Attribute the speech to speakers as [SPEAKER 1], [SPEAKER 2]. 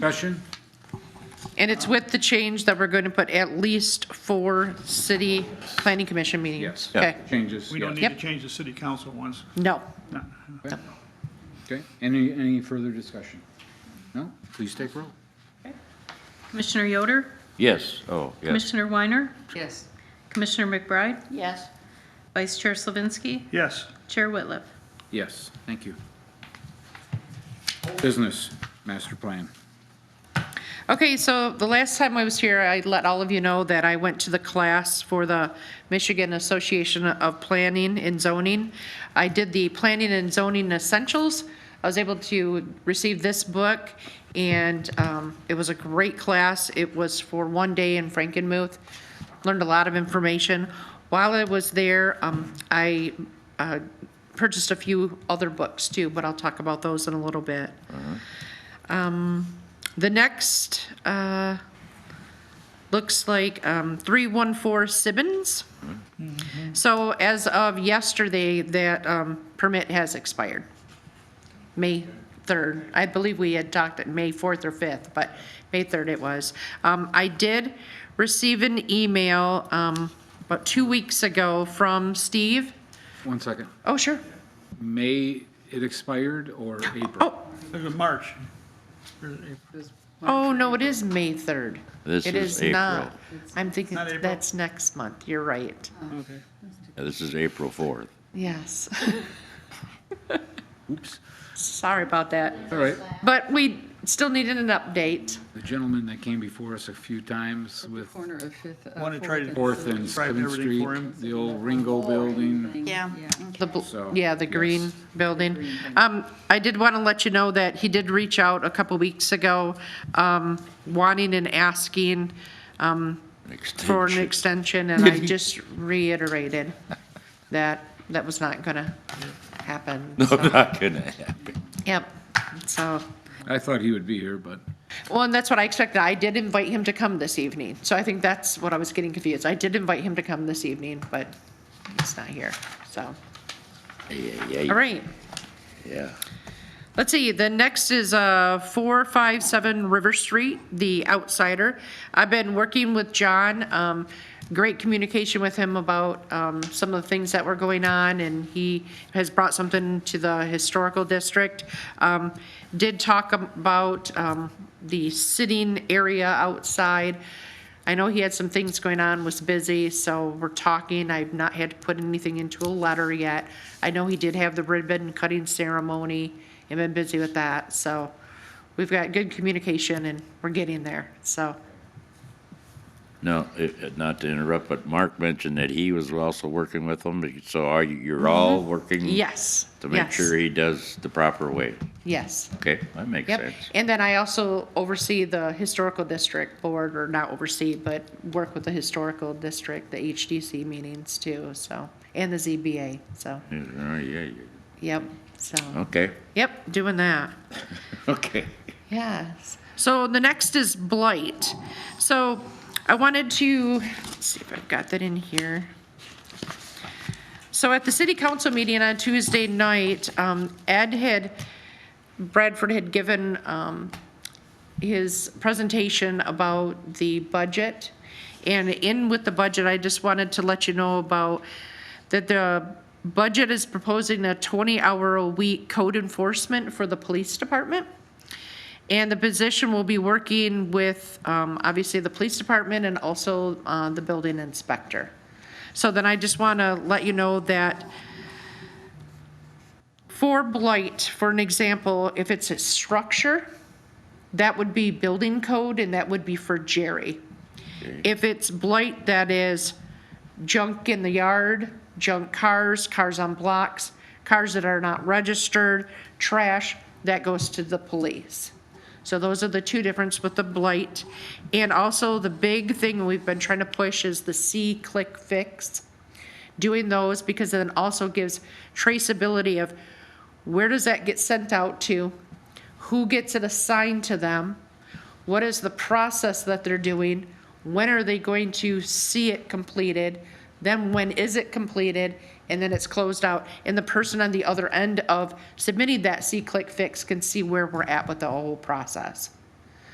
[SPEAKER 1] Discussion?
[SPEAKER 2] And it's with the change that we're going to put at least four city planning commission meetings?
[SPEAKER 1] Yes.
[SPEAKER 3] Yeah.
[SPEAKER 2] Okay,
[SPEAKER 1] Changes?
[SPEAKER 4] We don't
[SPEAKER 1] yes.
[SPEAKER 4] need to
[SPEAKER 2] Yep.
[SPEAKER 4] change the city council ones.
[SPEAKER 2] no.
[SPEAKER 4] No.
[SPEAKER 1] Okay, any, any further discussion? No? Please take roll.
[SPEAKER 5] Commissioner Yoder?
[SPEAKER 3] Yes, oh, yes.
[SPEAKER 5] Commissioner Weiner?
[SPEAKER 2] Yes.
[SPEAKER 5] Commissioner McBride?
[SPEAKER 2] Yes.
[SPEAKER 5] Vice Chair Slavinsky?
[SPEAKER 4] Yes,
[SPEAKER 5] Chair Whitliff?
[SPEAKER 1] Yes, thank you. Business master plan.
[SPEAKER 2] Okay, so the last time I was here, I let all of you know that I went to the class for the Michigan Association of Planning and Zoning. I did the Planning and Zoning Essentials. I was able to receive this book, and um, it was a great class. It was for one day in Frankenmuth. Learned a lot of information. While I was there, um, I uh, purchased a few other books too, but I'll talk about those in a little bit. The next uh, looks like um, 314 Sibbins.
[SPEAKER 4] Mm-hmm.
[SPEAKER 2] So as of yesterday, that um, permit has expired, May 3rd. I believe we had talked at May 4th or 5th, but May 3rd it was. Um, I did receive an email um, about two weeks ago from Steve.
[SPEAKER 1] One second.
[SPEAKER 2] Oh, sure.
[SPEAKER 1] May it expired or April?
[SPEAKER 2] Oh,
[SPEAKER 4] there's a March.
[SPEAKER 2] Oh, no, it is May 3rd.
[SPEAKER 3] This
[SPEAKER 2] It
[SPEAKER 3] is
[SPEAKER 2] not. I'm thinking
[SPEAKER 4] Not April?
[SPEAKER 2] that's next month. You're right.
[SPEAKER 3] Yeah, This is April 4th.
[SPEAKER 2] Yes.
[SPEAKER 1] Oops.
[SPEAKER 2] Sorry about that.
[SPEAKER 1] All right.
[SPEAKER 2] But we still needed an update.
[SPEAKER 1] The gentleman that came before us a few times with
[SPEAKER 6] Corner of Fifth. uh,
[SPEAKER 4] Wanna try to-
[SPEAKER 6] Fourth
[SPEAKER 1] Fourth and
[SPEAKER 4] Described
[SPEAKER 1] Seventh
[SPEAKER 4] everything
[SPEAKER 1] Street,
[SPEAKER 4] for him.
[SPEAKER 1] the old Ringo Building.
[SPEAKER 6] thing, Yeah.
[SPEAKER 2] The, bl-
[SPEAKER 1] So,
[SPEAKER 2] yeah, the green
[SPEAKER 1] yes.
[SPEAKER 2] building. Um, I did want to let you know that he did reach out a couple weeks ago, um, wanting and asking, um,
[SPEAKER 3] an
[SPEAKER 2] for an extension,
[SPEAKER 3] extension.
[SPEAKER 2] and I just reiterated that that was not gonna happen.
[SPEAKER 3] No,
[SPEAKER 2] so-
[SPEAKER 3] not gonna happen.
[SPEAKER 2] Yep, so,
[SPEAKER 1] I thought he would be here, but
[SPEAKER 2] well, and that's what I expected. I did invite him to come this evening, so I think that's what I was getting confused. I did invite him to come this evening, but he's not here, so.
[SPEAKER 3] Yeah, yeah,
[SPEAKER 2] All
[SPEAKER 3] yeah,
[SPEAKER 2] right,
[SPEAKER 3] yeah.
[SPEAKER 2] let's see, the next is, uh, four, five, seven River Street, The Outsider. I've been working with John, um, great communication with him about, um, some of the things that were going on, and he has brought something to the historical district. Um, did talk about, um, the sitting area outside. I know he had some things going on, was busy, so we're talking. I've not had to put anything into a letter yet. I know he did have the ribbon cutting ceremony and been busy with that, so we've got good communication and we're getting there, so.
[SPEAKER 3] No, it- it- not to interrupt, but Mark mentioned that he was also working with them, so are you, you're all working?
[SPEAKER 2] Mm-hmm. Yes.
[SPEAKER 3] To make
[SPEAKER 2] yes,
[SPEAKER 3] sure he does the proper way.
[SPEAKER 2] Yes.
[SPEAKER 3] Okay, that makes
[SPEAKER 2] Yep,
[SPEAKER 3] sense.
[SPEAKER 2] and then I also oversee the historical district board, or not oversee, but work with the historical district, the HDC meetings too, so, and the ZBA, so,
[SPEAKER 3] Yeah, yeah, yeah.
[SPEAKER 2] yep, so,
[SPEAKER 3] Okay,
[SPEAKER 2] yep, doing that.
[SPEAKER 3] okay.
[SPEAKER 2] Yes. So the next is blight. So I wanted to, let's see if I've got that in here. So at the city council meeting on Tuesday night, um, Ed had, Bradford had given, um, his presentation about the budget. And in with the budget, I just wanted to let you know about that the budget is proposing a 20-hour-a-week code enforcement for the police department. And the position will be working with, um, obviously, the police department and also uh, the building inspector. So then I just want to let you know that for blight, for an example, if it's a structure, that would be building code and that would be for Jerry. If it's blight that is junk in the yard, junk cars, cars on blocks, cars that are not registered, trash, that goes to the police. So those are the two difference with the blight. And also the big thing we've been trying to push is the C click fix. Doing those because then also gives traceability of where does that get sent out to? Who gets it assigned to them? What is the process that they're doing? When are they going to see it completed? Then when is it completed? And then it's closed out. And the person on the other end of submitting that C-click fix can see where we're at with the whole process.